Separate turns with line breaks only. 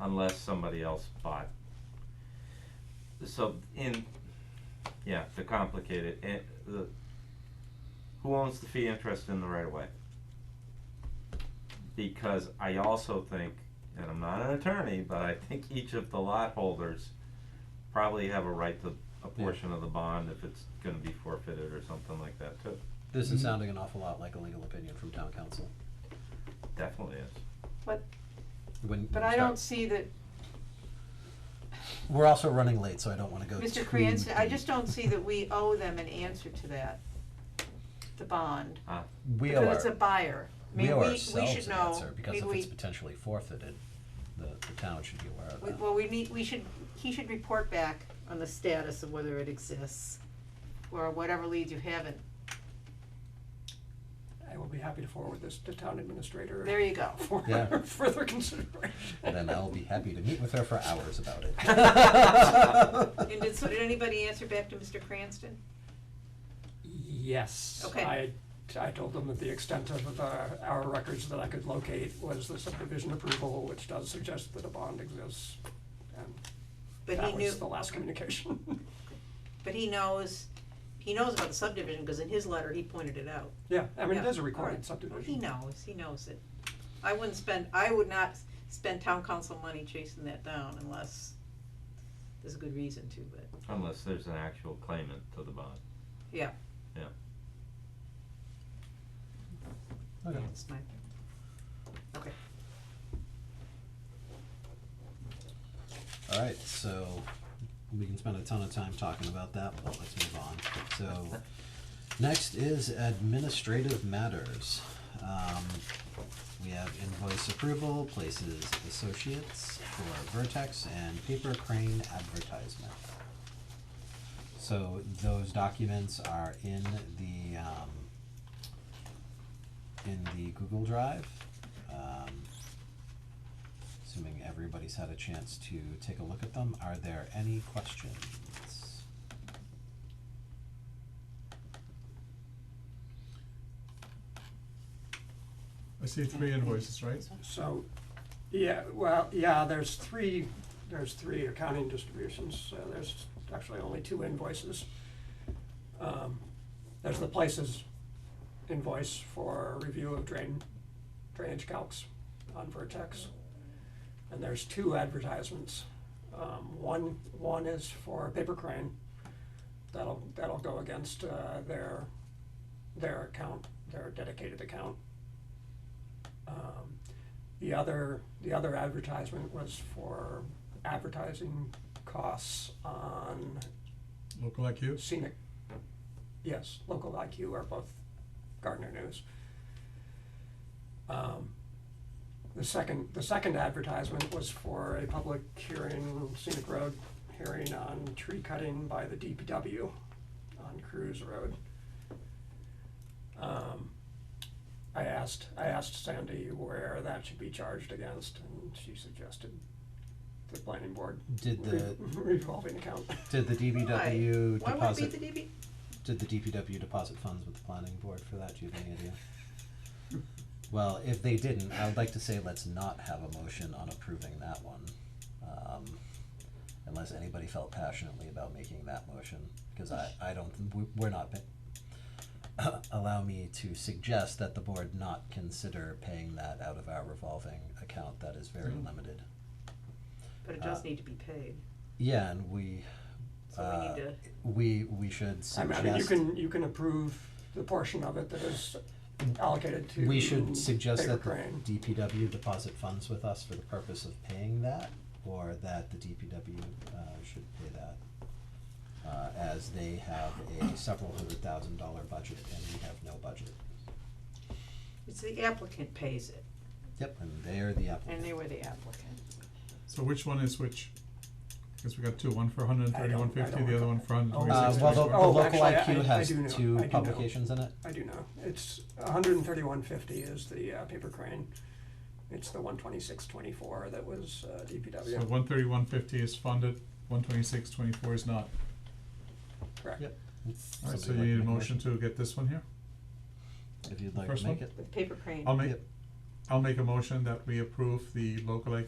unless somebody else bought. So in, yeah, to complicate it, it, the, who owns the fee interest in the right of way? Because I also think, and I'm not an attorney, but I think each of the lot holders probably have a right to a portion of the bond if it's gonna be forfeited or something like that too.
This is
Mm-hmm.
Mhm.
sounding an awful lot like a legal opinion from town council.
Definitely is.
When, when
But I
you
don't
start-
see that,
We're also running late, so I don't wanna go too.
Mr. Cranston, I
deep.
just don't see that we owe them an answer to that, the bond.
We owe
Because it's a
our,
buyer. I
we
mean,
owe
we, we
ourselves
should
an
know,
answer,
I
because
mean,
if it's
we,
potentially forfeited, the, the town should be aware of
we-
that.
well, we need, we should, he should report back on the status of whether it exists or whatever leads you haven't.
I will be happy to forward this to town administrator
There you go.
for
Yeah.
further consideration.
Then I'll be happy to meet with her for hours about it.
And did, so did anybody answer back to Mr. Cranston?
Yes,
Okay.
I, I told them that the extent of the, our records that I could locate was the subdivision approval, which does suggest that a bond exists. And
But he
that
knew,
was the last communication.
but he knows, he knows about the subdivision, cause in his letter, he pointed it out.
Yeah, I mean, it
Yeah,
is a recorded
alright. Well, He
subdivision.
knows, he knows it. I wouldn't spend, I would not s- spend town council money chasing that down unless there's a good reason to, but.
Unless there's an actual claimant to the bond.
Okay.
It's my,
Alright, so we can spend a ton of time talking about that, but let's move on. So, next is administrative matters. Um, we have invoice approval, places associates for Vertex and Paper Crane advertisement. So those documents are in the, um, in the Google Drive. Um, Assuming everybody's had a chance to take a look at them, are there any questions?
I see three invoices, right?
So, yeah, well, yeah, there's three, there's three accounting distributions, so there's actually only two invoices. Um, There's the places invoice for review of drain, drainage calcs on Vertex. And there's two advertisements. Um, one, one is for Paper Crane. That'll, that'll go against, uh, their, their account, their dedicated account. Um, the other, the other advertisement was for advertising costs on
Local IQ.
scenic, yes, local IQ are both Gardner News. Um, the second, the second advertisement was for a public hearing, scenic road hearing on tree cutting by the DPW on Cruise Road. Um, I asked, I asked Sandy where that should be charged against, and she suggested the planning board
Did the,
revolving account.
did the DBW
why would it
deposit,
be the DB?
did the DPW deposit funds with the planning board for that, do you have any idea? Well, if they didn't, I would like to say let's not have a motion on approving that one. Um, unless anybody felt passionately about making that motion, cause I, I don't, we, we're not pa- allow me to suggest that the board not consider paying that out of our revolving account, that is very
Mm-hmm.
Mm.
limited.
But it does
Uh,
need to be paid,
Yeah, and we,
so we need
Uh,
to,
we, we should
I mean, I mean, you
suggest,
can, you can approve the portion of it that is allocated to.
we should suggest
Paper
that the
Crane.
DPW deposit funds with us for the purpose of paying that, or that the DPW, uh, should pay that. Uh, as they have a several hundred thousand dollar budget and we have no budget.
it's the applicant pays it,
Yep, and they are the applicant.
and they were the applicant.
So which one is which? Because we got two, one for hundred and
I don't- I
thirty-one fifty,
don't
the other one for hundred and
recall.
Uh,
twenty-six.
well, the, the
Oh,
local
actually, I- I- I
IQ has
do know. I
two
do know.
publications in it,
I do know, it's hundred and thirty-one fifty is the uh, Paper Crane, it's the one twenty-six twenty-four that was uh,
So
DPW,
one thirty-one fifty is funded, one twenty-six twenty-four is not.
correct?
Yep.
Alright, so
Somebody
you
like to
need a
make a
motion to get this one here?
if you'd like
First
to
one?
make it.
The paper crane.
I'll make,
Yep.
I'll make a motion that we approve the local